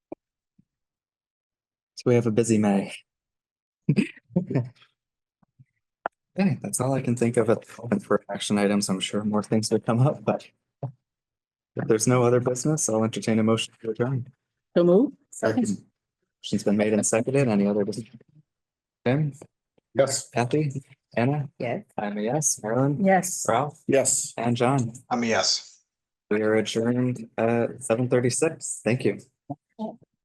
So we have a busy May. Okay, that's all I can think of at the moment for action items. I'm sure more things will come up, but if there's no other business, I'll entertain a motion to adjourn. So move. Motion's been made and seconded. Any other discussion? Tim? Yes. Kathy? Anna? Yes. I'm a yes. Marilyn? Yes. Ralph? Yes. And John? I'm a yes. We are adjourned at seven thirty-six. Thank you.